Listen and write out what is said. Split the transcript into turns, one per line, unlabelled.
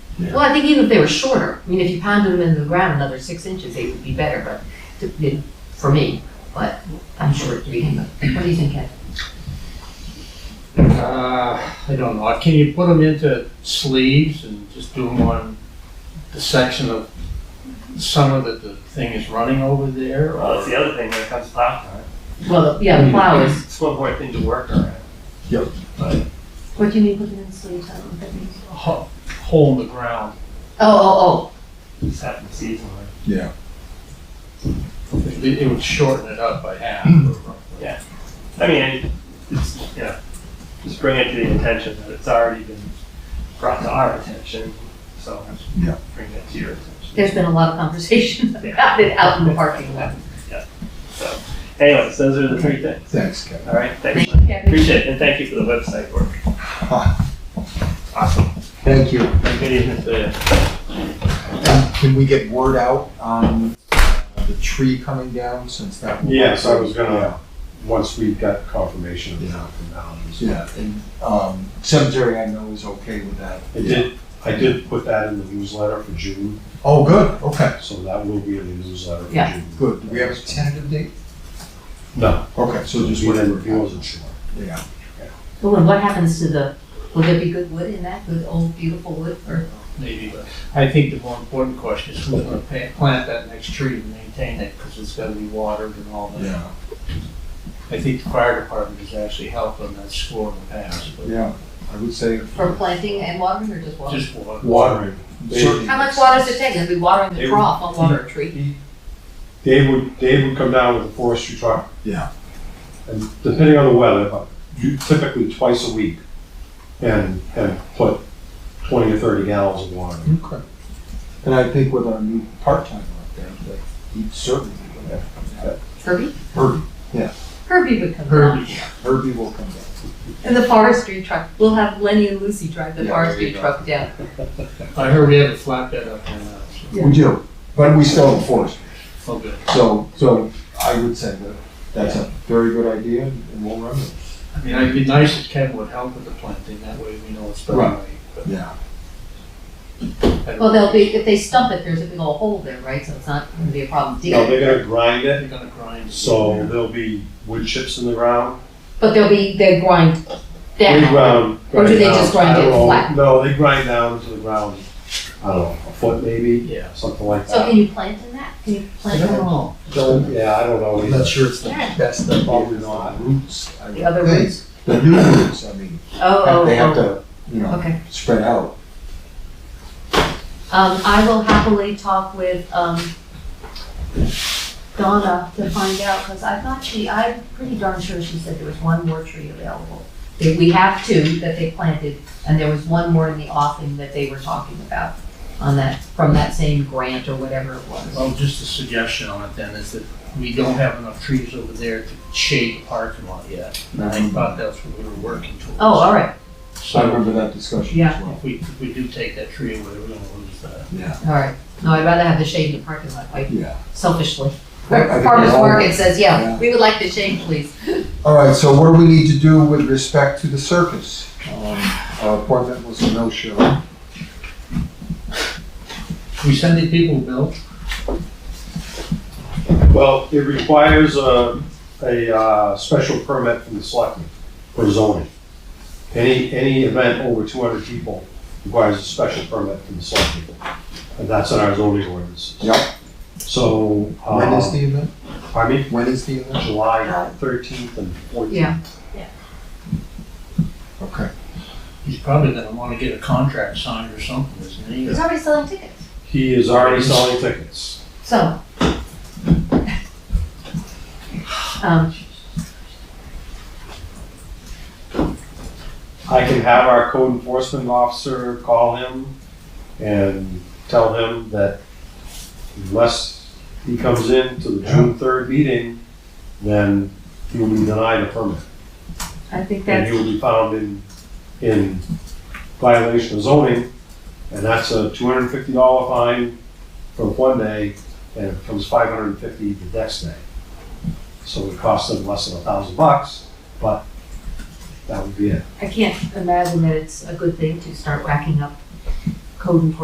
Well, I think even if they were shorter, I mean, if you pounded them into the ground another six inches, they would be better, but, to- it- for me, but I'm sure it'd be, what do you think, Ed?
Uh, I don't know, can you put them into sleeves and just do them on the section of summer that the thing is running over there?
Well,
Oh,
that's
Or
the other thing when it comes to plow time.
Well, yeah, the flowers.
It's one more thing to work around.
What do you mean, put them in sleeves, I don't know what that means.
ho- hole in the ground?
Oh, oh,
Just happen seasonally.
Yeah.
It it would shorten it up by half. or roughly.
I mean, it's, you know, just bring it to the attention that it's already been brought to our attention, so.
Yeah.
Bring it to your
oh,
attention.
there's been a lot of conversation about it out in the parking lot.
Anyways, those are the three things.
Thanks, Kevin.
All right, thanks.
Thank you, Kevin.
Appreciate it, and thank you for the website work. Awesome.
Thank you.
Have a Good evening to you.
And Can we get word out on the tree coming down since that?
Yes, I was gonna, once we got confirmation of that from boundaries.
Yeah, and um, cemetery I know is okay with that.
I did, I did put that in the newsletter for June,
Oh, good, okay,
so that will be in the newsletter for
Yeah.
June.
good. Do we have a tentative date?
No,
Okay, so just
he didn't, he
whatever.
wasn't sure.
Yeah.
Oh, and what happens to the, will there be good wood in that, good old beautiful wood, or,
Maybe, but I think the more important question is who's gonna pa- plant that next tree and maintain it, because it's gotta be watered and all that.
Yeah,
I think the fire department has actually helped on that score in the past, but
yeah, I would say.
for planting and watering, or just watering?
just water.
Watering,
certainly-
How much water does it take, it'll be watering the
It-
trough, not water a tree.
Dave would, Dave would come down with a forestry truck.
Yeah.
And depending on the weather, but you- typically twice a week, and, and put twenty or thirty gallons of water.
Okay. And I think with our new part-timer up there, that he'd certainly be there.
Herbie?
Herbie,
Herbie would come down.
Herbie,
Herbie will come down.
And the forestry truck, we'll have Lenny and Lucy drive the
Yeah, there
forestry
you go.
truck down.
I heard we have a flatbed up uh, there now, so,
We do, but we still enforce.
oh, good.
So, so I would say that that's a very good idea and we'll run it.
I mean, it'd be nice if Kevin would help with the planting, that way we know it's done
Right.
right. but
Yeah.
I
Well,
don't know.
they'll be, if they stump it, there's a big old hole there, right, so it's not gonna be a problem
No,
digging.
they're gonna grind it,
They're gonna grind. it.
so there'll be wood chips in the ground,
But they'll be, they grind
They
down.
ground.
Or do they
down,
just grind
I don't
it
know.
flat?
No, they grind down to the ground, I don't know, a foot maybe,
Yeah.
something like
So
that.
can you plant in that? Can you
I
plant
don't
in
know.
Don't- Yeah, I don't know.
I'm
either.
not sure it's the,
Yeah.
that's the
Probably
problem, the
not.
roots. I
the
would
other
think.
roots?
The new roots, I mean,
Oh, oh,
they have
oh,
to, you know,
okay.
spread out.
Um, I will happily talk with, um, Donna to find out, because I thought she, I'm pretty darn sure she said there was one more tree available. That we have two that they planted, and there was one more in the offing that they were talking about on that, from that same grant or whatever it was. Oh,
Well, just a suggestion on it then is that we don't have enough trees over there to shade the parking lot yet. And I thought that's what we were working towards.
Oh, all right,
I
So
remember that discussion as
Yeah.
well.
if we, if we do take that tree away, we're gonna lose that.
Yeah,
all right. No, I'd rather have the shade in the parking lot, like
yeah.
selfishly.
I think
Farmers
we all-
Market says, yeah,
Yeah.
we would like the shade, please.
All right, so what do we need to do with respect to the circus? Um, Our appointment was a no-show.
We sending people, Bill?
Well, it requires a, a, uh, special permit from the selectmen for zoning. Any, any event over two hundred people requires a special permit from the selectmen. And that's in our zoning ordinances.
Yep.
So,
When is
uh,
the event?
pardon me,
When is the event?
July thirteenth and fourteenth.
Yeah.
Okay.
He's probably gonna wanna get a contract signed or something, isn't he?
He's already selling tickets.
He is already selling tickets.
So. Um,
I can have our code enforcement officer call him and tell him that unless he comes in to the June third meeting, then he will be denied a permit.
I think
And
that's,
he will be found in, in violation of zoning, and that's a two hundred and fifty dollar fine for one day, and it becomes five hundred and fifty the next day. So it costs them less than a thousand bucks, but that would be it.
I can't imagine that it's a good thing to start racking up code enforcement